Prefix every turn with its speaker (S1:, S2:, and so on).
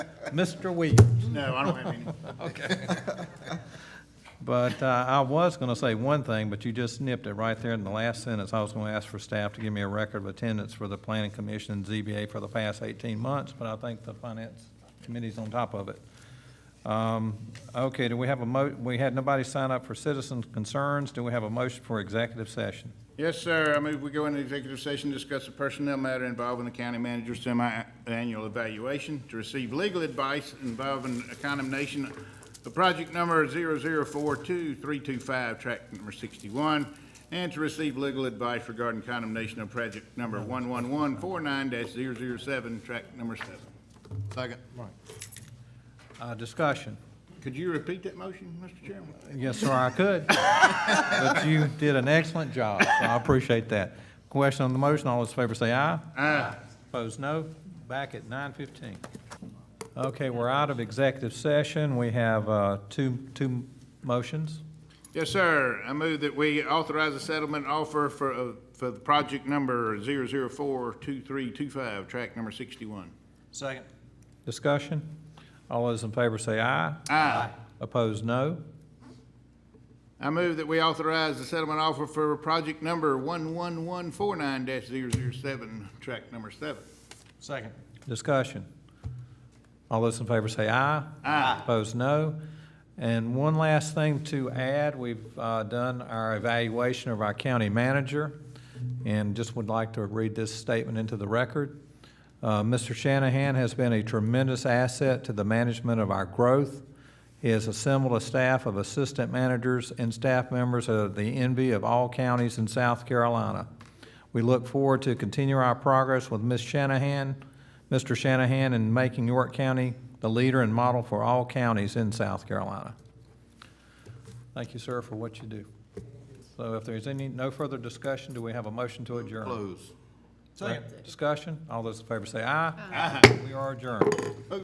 S1: Mr. Williams.
S2: No, I don't have any.
S1: But uh, I was going to say one thing, but you just snipped it right there in the last sentence. I was going to ask for staff to give me a record of attendance for the planning commission and ZBA for the past 18 months, but I think the finance committee's on top of it. Um, Okay, do we have a mo, we had nobody sign up for citizens' concerns. Do we have a motion for executive session?
S2: Yes, sir. I move we go into executive session, discuss a personnel matter involving the county manager's semi-annual evaluation, to receive legal advice involving a condemnation of project number 0042325, track number 61, and to receive legal advice regarding condemnation of project number 11149-007, track number 7. Second.
S1: Uh, Discussion.
S2: Could you repeat that motion, Mr. Chairman?
S1: Yes, sir, I could. But you did an excellent job, so I appreciate that. Question on the motion, all those in favor say aye.
S2: Aye.
S1: Opposed, no. Back at nine fifteen. Okay, we're out of executive session. We have uh, two, two motions.
S2: Yes, sir. I move that we authorize a settlement offer for, uh, for the project number 0042325, track number 61.
S3: Second.
S1: Discussion. All those in favor say aye.
S2: Aye.
S1: Opposed, no.
S2: I move that we authorize the settlement offer for project number 11149-007, track number 7.
S3: Second.
S1: Discussion. All those in favor say aye.
S2: Aye.
S1: Opposed, no. And one last thing to add, we've uh, done our evaluation of our county manager, and just would like to read this statement into the record. Uh, Mr. Shanahan has been a tremendous asset to the management of our growth. He has assembled a staff of assistant managers and staff members of the envy of all counties in South Carolina. We look forward to continue our progress with Ms. Shanahan, Mr. Shanahan, in making York County the leader and model for all counties in South Carolina. Thank you, sir, for what you do. So if there's any, no further discussion, do we have a motion to adjourn?
S2: Close.
S1: Discussion? All those in favor say aye. Aye. We are adjourned.